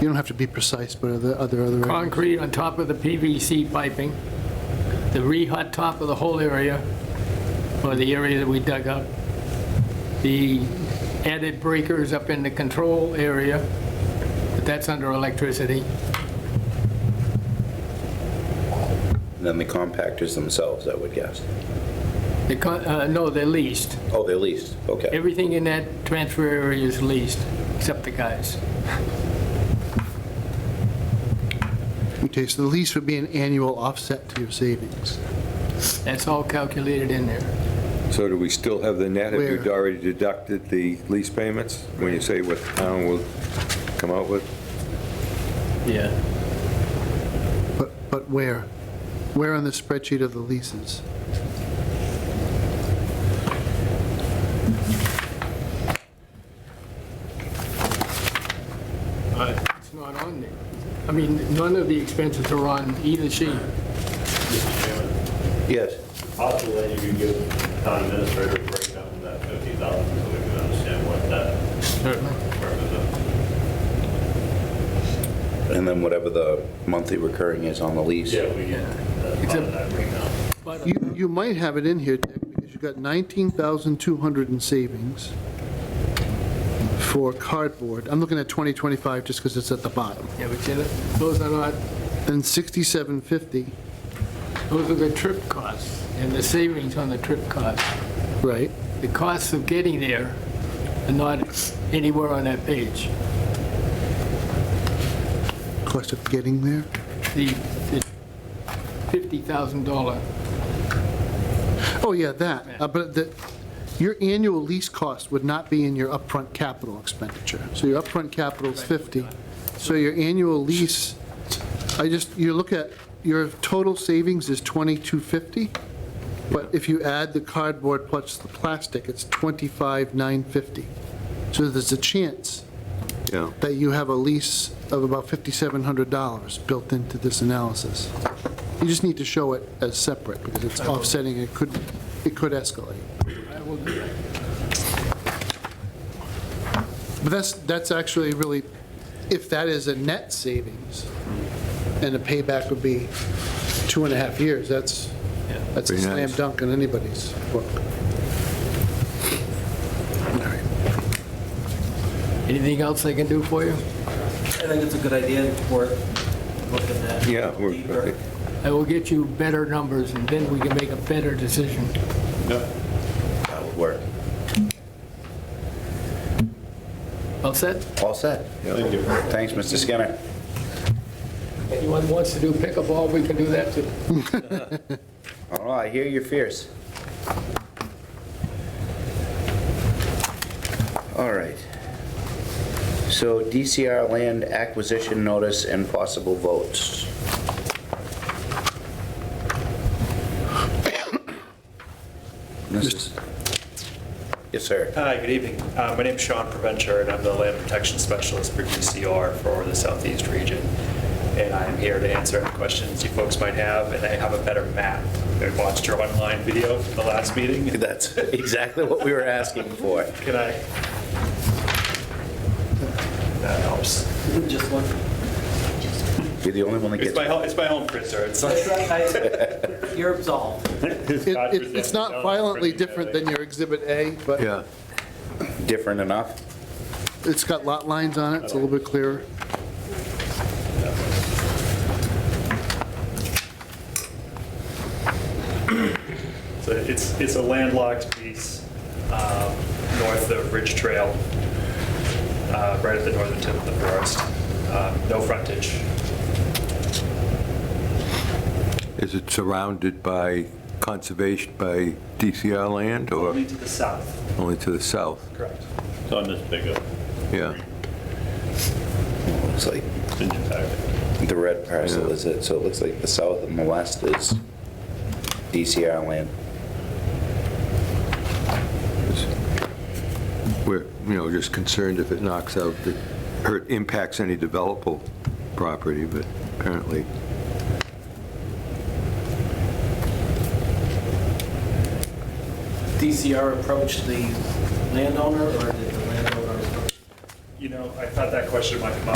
You don't have to be precise, but are there are there other? concrete on top of the PVC piping, the re-hot top of the whole area, or the area that we dug up, the added breakers up in the control area, but that's under electricity. Then the compactors themselves, I would guess. The con- uh, No, they're leased. Oh, they're leased, okay. Everything in that transfer area is leased, except the guys. Okay, so the lease would be an annual offset to your savings. That's all calculated in there. So do we still have the net? Have Where? you already deducted the lease payments? When you say what the town will come out with? Yeah. But, but where? Where on the spreadsheet of the leases? It's not on there. I mean, none of the expenses are on either sheet. Mr. Chairman, Yes. possible that you could give town administrator a breakdown of that 50,000 so we can understand what that represents. And then whatever the monthly recurring is on the lease. Yeah, we can, that's part of that breakdown. But You, you might have it in here, Dick, because you've got 19,200 in savings for cardboard. I'm looking at 2025 just because it's at the bottom. Yeah, but you know, those are not, Then 6750, those are the trip costs and the savings on the trip costs. right? The costs of getting there are not anywhere on that page. Cost of getting there. The the $50,000, Oh, yeah, that. Uh, But the, your annual lease cost would not be in your upfront capital expenditure. So your upfront capital is 50. So your annual lease, I just, you look at, your total savings is 2250, but if you add the cardboard plus the plastic, it's 25950. So there's a chance Yeah. that you have a lease of about $5,700 built into this analysis. You just need to show it as separate, because it's offsetting, it could, it could escalate. I will do that. But that's, that's actually really, if that is a net savings, and the payback would be two and a half years, that's, that's a Pretty slam nice. dunk in anybody's book. Anything else I can do for you? I think it's a good idea for looking at. Yeah, we're- deeper. I will get you better numbers, and then we can make a better decision. That would work. All set? All set. Thank you. Thanks, Mr. Skinner. Anyone wants to do pickleball, we can do that too. Oh, I hear you're fierce. All right. So DCR land acquisition notice and possible votes. This is- Yes, sir. Hi, good evening. Uh, My name's Sean Provencher, and I'm the Land Protection Specialist for DCR for the Southeast Region. And I am here to answer any questions you folks might have, and I have a better map. I watched your online video from the last meeting. That's exactly what we were asking for. Can I? That helps. Just one. You're the only one that It's gets. my, home- it's my home printer. It's That's like. right, I- You're absolved. It- it- It's not violently different than your Exhibit A, but Yeah. Different enough? it's got lot lines on it, it's a little bit clearer. So It's, it's a landlocked piece um, north of Ridge Trail, uh, right at the northern tip of the forest. Um, No frontage. Is it surrounded by conservation, by DCR land or Only to the south. only to the south? Correct. It's on this big of, Yeah. Looks like it's in your packet. the red parcel is it, so it looks like the south and the west is DCR land. We're, you know, just concerned if it knocks out, the- or it impacts any developable property, but apparently. DCR approached the landowner, or did the landowner approach You know, I thought that question might come up.